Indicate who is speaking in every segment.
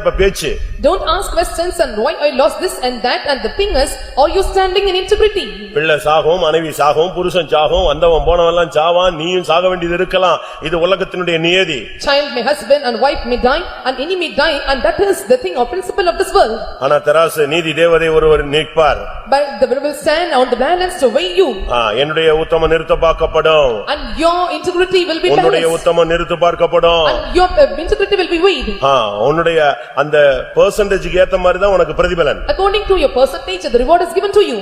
Speaker 1: இப்ப பேச்சு
Speaker 2: Don't ask questions and why I lost this and that and the fingers, are you standing in integrity?
Speaker 1: பிள்ளை சாகும் மனைவி சாகும் புருஷன் சாகும் வந்தவன் போனவன் எல்லாம் சாவான் நீயும் சாக வேண்டியது இருக்கலாம் இது உலகத்தினுடைய நியதி
Speaker 2: Child may husband and wife may die and any may die and that is the thing or principle of this world.
Speaker 1: ஆனா தராசு நீதி தேவதை ஒருவர் நிற்பார்
Speaker 2: But the Lord will stand on the balance to weigh you
Speaker 1: ஆ, என்னுடைய உத்தம நிறுத்த பார்க்கப்படும்
Speaker 2: and your integrity will be
Speaker 1: உன்னுடைய
Speaker 2: balanced.
Speaker 1: உத்தம நிறுத்த பார்க்கப்படும்
Speaker 2: And your uh, integrity will be weighed.
Speaker 1: ஆ, உன்னுடைய அந்த பெர்சன்டேஜ்க்கு ஏத்த மாதிரி தான் உனக்கு பிரதிபலன்
Speaker 2: According to your percentage, the reward is given to you.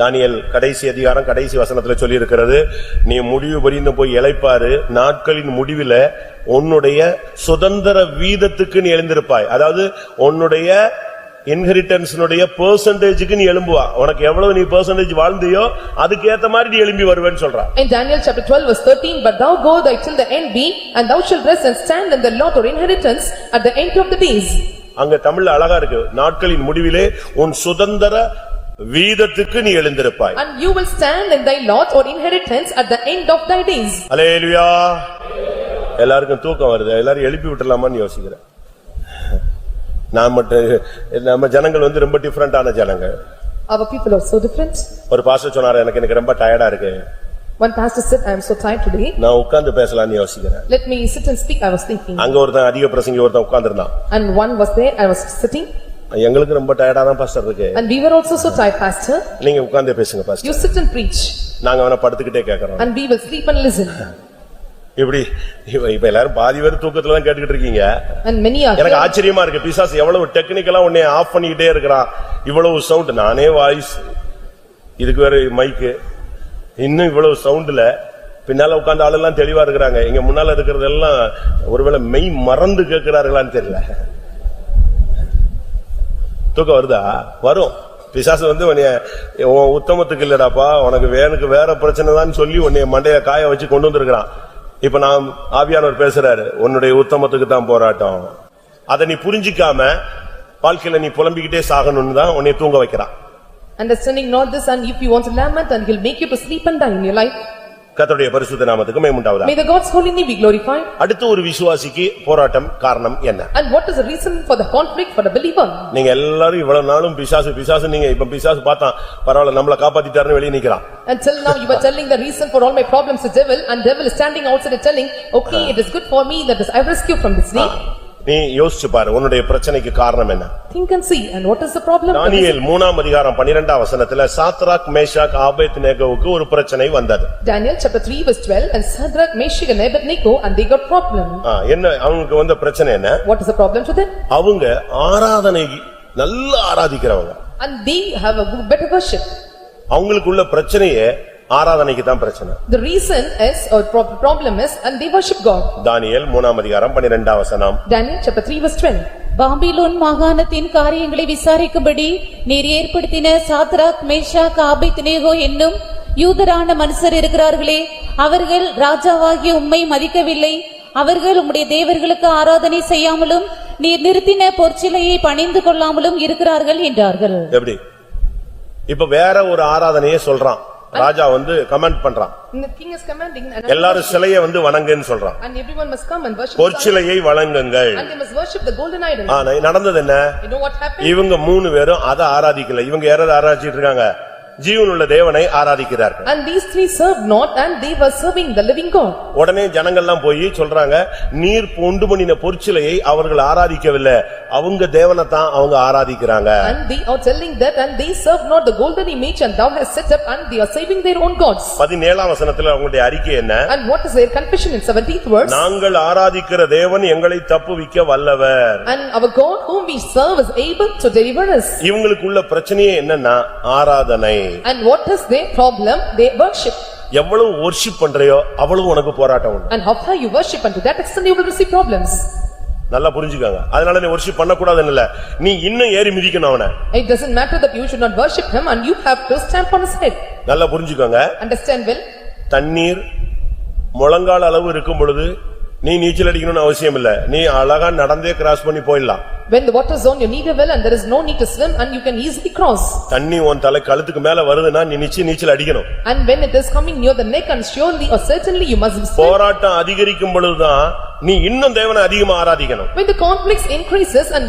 Speaker 1: தானியேல் கடைசி அதிகாரம் கடைசி வசனத்துல சொல்லியிருக்கிறது நீ முடிவு பரியந்தம் போய் இளைப்பாரு நாட்களின் முடிவில உன்னுடைய சுதந்திர வீதத்துக்கு நீ எழுந்திருப்பாய் அதாவது உன்னுடைய இன்ஹெரிட்டன்ஸ்னுடைய பெர்சன்டேஜ்க்கு நீ எழும்புவா உனக்கு எவ்வளவு நீ பெர்சன்டேஜ் வாழ்ந்தியோ அதுக்கேத்த மாதிரி நீ எழும்பி வருவேன்னு சொல்றா
Speaker 2: In Daniel chapter twelve verse thirteen, "But thou go thy till the end be, and thou shalt rest and stand in the lot or inheritance at the end of the days."
Speaker 1: அங்க தமிழ்ல அழகா இருக்கு நாட்களின் முடிவிலே உன் சுதந்திர வீதத்துக்கு நீ எழுந்திருப்பாய்
Speaker 2: And you will stand in thy lot or inheritance at the end of thy days.
Speaker 1: அலேலுயா எல்லாருக்கும் தூக்கம் வருது எல்லாரும் எழுப்பி விட்டுலாமான்னு யோசிக்கிறேன் நான் மட்டும் நம்ம ஜனங்கள் வந்து ரொம்ப டிஃப்ரெண்டான ஜனங்க
Speaker 2: Our people are so different.
Speaker 1: ஒரு பாஸ்டர் சொன்னாரு எனக்கு எனக்கு ரொம்ப டயர்டா இருக்கு
Speaker 2: One pastor said, "I am so tired today.
Speaker 1: நான் உட்கார்ந்து பேசலாம்னு யோசிக்கிறேன்
Speaker 2: Let me sit and speak." I was thinking.
Speaker 1: அங்க ஒருத்தன் அதிக பிரசங்கி ஒருத்தன் உட்கார்ந்திருந்தான்
Speaker 2: And one was there, I was sitting,
Speaker 1: எங்களுக்கு ரொம்ப டயர்டா தான் பாஸ்டர் இருக்கு
Speaker 2: and we were also so tired, pastor.
Speaker 1: நீங்க உட்கார்ந்தே பேசுங்க pastor
Speaker 2: You sit and preach,
Speaker 1: நாங்க அவனை படுத்துக்கிட்டே கேட்கறோம்
Speaker 2: and we will sleep and listen.
Speaker 1: இப்படி இப்ப- இப்ப எல்லாரும் பாதி பேர் தூக்கத்துல தான் கேட்டுக்கிட்டு இருக்கீங்க
Speaker 2: And many are
Speaker 1: எனக்கு
Speaker 2: here.
Speaker 1: ஆச்சரியமா இருக்கு பிசாசு எவ்வளவு டெக்னிக்கலா உன்னை ஆஃப் பண்ணிக்கிட்டே இருக்கிறான் இவ்வளவு சவுண்ட் நானே வாய்ஸ் இதுக்கு வேற மைக்கு இன்னும் இவ்வளவு சவுண்ட்ல பின்னால உட்கார்ந்த ஆளெல்லாம் தெளிவா இருக்கிறாங்க இங்க முன்னால இருக்கிறதெல்லாம் ஒருவேளை மெய் மறந்து கேட்கிறார்களான்னு தெரியல தூக்கம் வருதா வரும் பிசாசு வந்து உன்னைய உன் உத்தமத்துக்கு இல்லடாப்பா உனக்கு வேனுக்கு வேற பிரச்சனை தான் சொல்லி உன்னைய மண்டைய காய வச்சு கொண்டு வந்திருக்கிறான் இப்ப நான் ஆவியானவர் பேசுறாரு உன்னுடைய உத்தமத்துக்கு தான் போராட்டம் அதை நீ புரிஞ்சிக்காம வாழ்க்கையில நீ புலம்பிக்கிட்டே சாகணும்னு தான் உன்னைய தூங்க வைக்கிறான்
Speaker 2: Understanding not this, and if you want to lament, and he'll make you to sleep and die in your life.
Speaker 1: கர்த்தருடைய பரிசுத்த நாமத்துக்கு மேமுண்டாவதா
Speaker 2: May the God's holy name be glorified.
Speaker 1: அடுத்து ஒரு விசுவாசிக்கு போராட்டம் காரணம் என்ன
Speaker 2: And what is the reason for the conflict for the believer?
Speaker 1: நீங்க எல்லாரும் இவ்வளவு நாளும் பிசாசு பிசாசு நீங்க இப்ப பிசாசு பார்த்தான் பரவாயில்ல நம்மள காப்பாத்திட்டாருன்னு வெளியே நிக்கிறான்
Speaker 2: Until now, you were telling the reason for all my problems is devil, and devil is standing outside and telling, "Okay, it is good for me that is I rescue from this snake."
Speaker 1: நீ யோசிச்சு பாரு உன்னுடைய பிரச்சனைக்கு காரணம் என்ன
Speaker 2: Think and see, and what is the problem?
Speaker 1: தானியேல் மூணாம் அதிகாரம் பனிரெண்டாம் வசனத்துல சாத்ராக் மேஷாக் ஆபேத்நேகோவுக்கு ஒரு பிரச்சனை வந்தது
Speaker 2: Daniel chapter three verse twelve, "And Shadrach, Meshach and Abednego, and they got problem."
Speaker 1: ஆ, என்ன அவங்களுக்கு வந்த பிரச்சனை என்ன
Speaker 2: What is the problem to them?
Speaker 1: அவங்க ஆராதனை நல்லா ஆராதிக்கிறவங்க
Speaker 2: And they have a good- better worship.
Speaker 1: அவங்களுக்குள்ள பிரச்சனையே ஆராதனைக்கு தான் பிரச்சனை
Speaker 2: The reason is, or prob- problem is, and they worship God.
Speaker 1: தானியேல் மூணாம் அதிகாரம் பனிரெண்டாம் வசனம்
Speaker 2: Daniel chapter three verse twelve.
Speaker 3: Babylon மாகாணத்தின் காரியங்களை விசாரிக்கும்படி நீர் ஏற்படுத்தின சாத்ராக் மேஷாக் ஆபேத்நேகோ என்னும் யூதரான மனுஷர் இருக்கிறார்களே அவர்கள் ராஜாவாகிய உம்மை மதிக்கவில்லை அவர்கள் உம்முடைய தேவர்களுக்கு ஆராதனை செய்யாமலும் நீர் நிறுத்தின பொற்சிலையை பணிந்து கொள்ளாமலும் இருக்கிறார்கள் என்றார்கள்
Speaker 1: எப்படி இப்ப வேற ஒரு ஆராதனையே சொல்றான் ராஜா வந்து கமெண்ட் பண்றான்
Speaker 2: And the king is commanding, and
Speaker 1: எல்லாரும் சிலைய வந்து வணங்குன்னு சொல்றான்
Speaker 2: and everyone must come and worship,
Speaker 1: பொற்சிலையை வணங்குங்கள்
Speaker 2: and they must worship the golden idol.
Speaker 1: ஆனா நடந்தது என்ன
Speaker 2: You know what happened?
Speaker 1: இவங்க மூணு பேரும் அதை ஆராதிக்கல இவங்க யாராவது ஆராதிச்சிட்டு இருக்காங்க ஜீவனுள்ள தேவனை ஆராதிக்கிறார்கள்
Speaker 2: And these three served not and they were serving the living God.
Speaker 1: உடனே ஜனங்கள்லாம் போய் சொல்றாங்க நீர் உண்டு பண்ணின பொற்சிலையை அவர்கள் ஆராதிக்கவில்லை அவங்க தேவனை தான் அவங்க ஆராதிக்கிறாங்க
Speaker 2: And they are telling that and they serve not the golden image and thou hast set up and they are saving their own gods.
Speaker 1: பதினேழாம் வசனத்துல அவங்களுடைய அறிக்கை என்ன
Speaker 2: And what is their confession in seventeenth verse?
Speaker 1: நாங்கள் ஆராதிக்கிற தேவன் எங்களை தப்புவிக்க வல்லவர்
Speaker 2: And our God whom we serve is able to deliver us.
Speaker 1: இவங்களுக்குள்ள பிரச்சனையே என்னன்னா ஆராதனை
Speaker 2: And what is their problem? They worship.
Speaker 1: எவ்வளவு ஒர்ஷிப் பண்றையோ அவ்வளவு உனக்கு போராட்டம் உண்டு
Speaker 2: And how far you worship and to that extent you will receive problems.
Speaker 1: நல்லா புரிஞ்சுக்காங்க அதனால நீ ஒர்ஷிப் பண்ணக்கூடாதுன்னு இல்ல நீ இன்னும் ஏறி மிதிக்கணும் அவனை
Speaker 2: It doesn't matter that you should not worship him and you have to stamp on his head.
Speaker 1: நல்லா புரிஞ்சுக்கோங்க
Speaker 2: Understand well?
Speaker 1: தண்ணீர் முழங்கால் அளவு இருக்கும் பொழுது நீ நீச்சல் அடிக்கணும்னு அவசியம் இல்ல நீ அழகா நடந்தே கிராஸ் பண்ணி போயிடலாம்
Speaker 2: When the water is on your knee well and there is no need to swim and you can easily cross.
Speaker 1: தண்ணி உன் தலை கழுத்துக்கு மேல வருதுன்னா நீ நிச்சயம் நீச்சல் அடிக்கணும்
Speaker 2: And when it is coming near the neck and surely or certainly you must swim.
Speaker 1: போராட்டம் அதிகரிக்கும் பொழுதுதான் நீ இன்னும் தேவனை அதிகமா ஆராதிக்கணும்
Speaker 2: When the conflicts increases and